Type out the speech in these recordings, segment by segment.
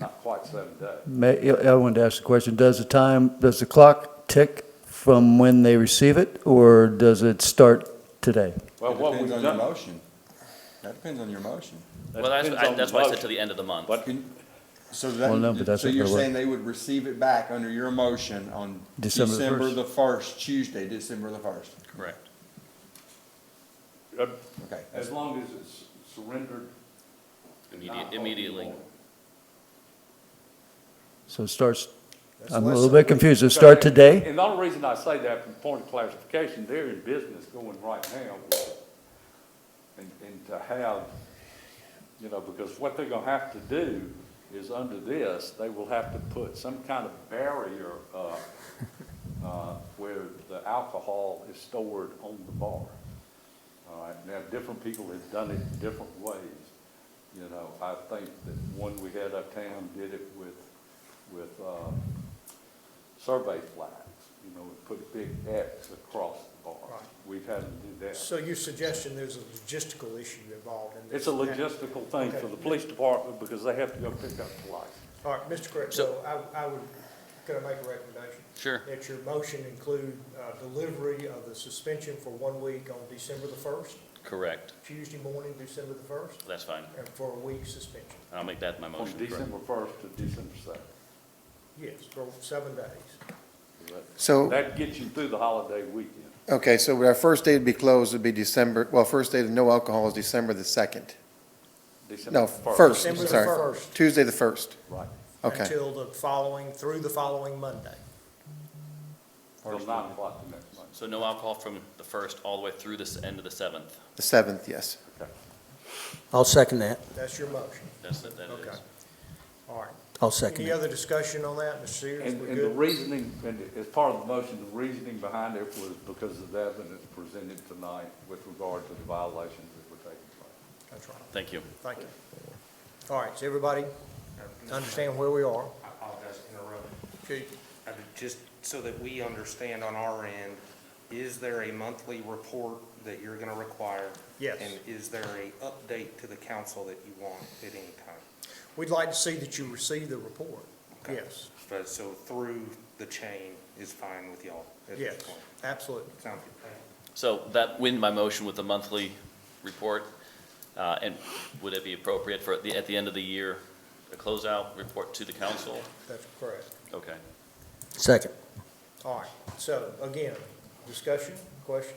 not quite seven uh, days. May, I I wanted to ask the question, does the time, does the clock tick from when they receive it, or does it start today? Well, It what we've depends on your done. motion. That depends on your motion. that Well, that's, depends I- on that's the why I said motion. to the end of the month. But- Can- So Well, no, but that, that's so not you're gonna work. saying they would receive it back under your motion on December the December first. the first, Tuesday, December the first? Correct. Uh, Okay. As long as it's surrendered. Immediate, immediately. So it starts, That's I'm a less little than a bit week. confused, does it start today? And the only reason I say that, from point of clarification, they're in business going right now. And, and to have, you know, because what they're gonna have to do is under this, they will have to put some kind of barrier up, uh, where the alcohol is stored on the bar. All right, now, different people have done it different ways. You know, I think that one we had uptown did it with, with, uh, survey flags, you know, and put big X across the bar. Right. We've had to do that. So your suggestion, there's a logistical issue involved in this? It's a logistical thing for the police department because they have to go pick up the license. All right, Mr. Crittenlow, So- I, I would, could I make a recommendation? Sure. That your motion include uh, delivery of the suspension for one week on December the first, Correct. Tuesday morning, December the first, That's fine. and for a week suspension. I'll make that my From motion. correct. December first to December second. Yes, for seven days. So, That gets you through the holiday weekend. okay, so our first day to be closed would be December, well, first day of no alcohol is December the 2nd. December No, 1st. first, December the sorry. 1st. Tuesday the 1st. Right. Okay. Until the following, through the following Monday. Till nine o'clock the next month. So no alcohol from the first all the way through this end of the seventh. The 7th, yes. I'll second that. That's your motion. That's, that that Okay. is. All right. I'll second Any it. other discussion on that, Mr. Sears? And, We're and the good? reasoning, and as part of the motion, the reasoning behind it was because of the evidence presented tonight with regard to the violations that were taking place. That's right. Thank you. Thank you. All right, so everybody understand where we are? I apologize for interrupting. Chief? I mean, Just so that we understand on our end, is there a monthly report that you're going to require? Yes. And is there a update to the council that you want at any time? We'd like to see that you receive the report. Okay. Yes, But So through the chain is fine with y'all at yes, this point? absolutely. Sound good? So that win my motion with the monthly report. Uh, and would it be appropriate for, at the, at the end of the year, a closeout report to the council? That's correct. Okay. Second. All right, so again, discussion, questions?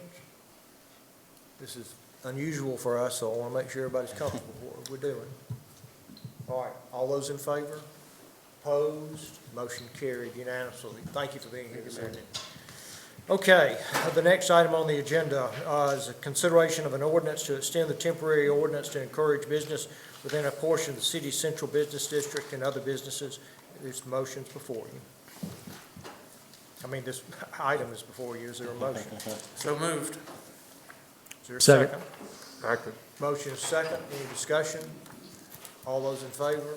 This is unusual for us, so I want to make sure everybody's comfortable with what we're doing. All right, all those in favor? Opposed? Motion carried unanimously. Thank you for being here this evening. Okay, the next item on the agenda uh, is a consideration of an ordinance to extend the temporary ordinance to encourage business within a portion of the city's central business district and other businesses. This motion's before you. I mean, this item is before you. Is there a motion? So moved. Is there a Second. second? Motion is second, any discussion? All those in favor?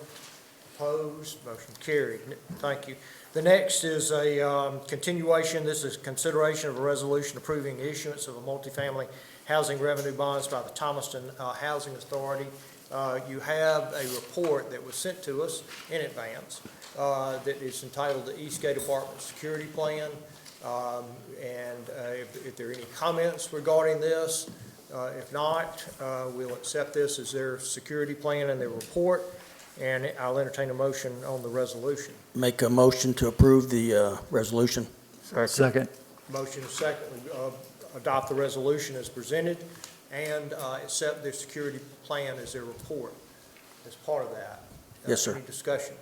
Opposed, motion carried. N- Thank you. The next is a um, continuation, this is consideration of a resolution approving the issuance of a multifamily housing revenue bonds by the Thomaston uh, Housing Authority. Uh, You have a report that was sent to us in advance uh, that is entitled the Eastgate Apartment Security Plan. Um, And uh, if if there are any comments regarding this, uh, If not, uh, we'll accept this as their security plan and their report, and I'll entertain a motion on the resolution. Make a motion to approve the uh, resolution. Second, Motion is second, we, uh, adopt the resolution as presented and uh, accept their security plan as their report as part of that. Uh, Yes, sir. Any discussion?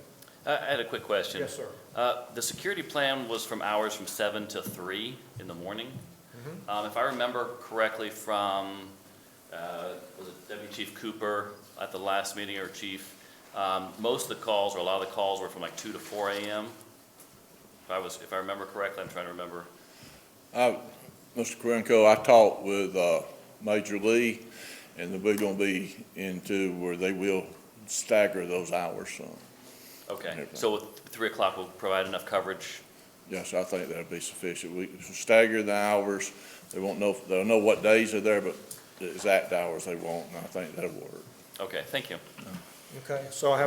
I, I had a quick question. Yes, sir. Uh, The security plan was from hours from seven to three in the morning. Um, If I remember correctly from, uh, was it Deputy Chief Cooper at the last meeting, or Chief, um, most of the calls, or a lot of the calls were from like two to four AM? If I was, if I remember correctly, I'm trying to remember. I, Mr. Karenko, I talked with, uh, Major Lee, and we're gonna be into where they will stagger those hours some. Okay, Never. so with three o'clock will provide enough coverage? Yes, I think that'd be sufficient. We stagger the hours. They won't know, they'll know what days they're there, but the exact hours they want, and I think that'll work. Okay, thank you. Okay, so I have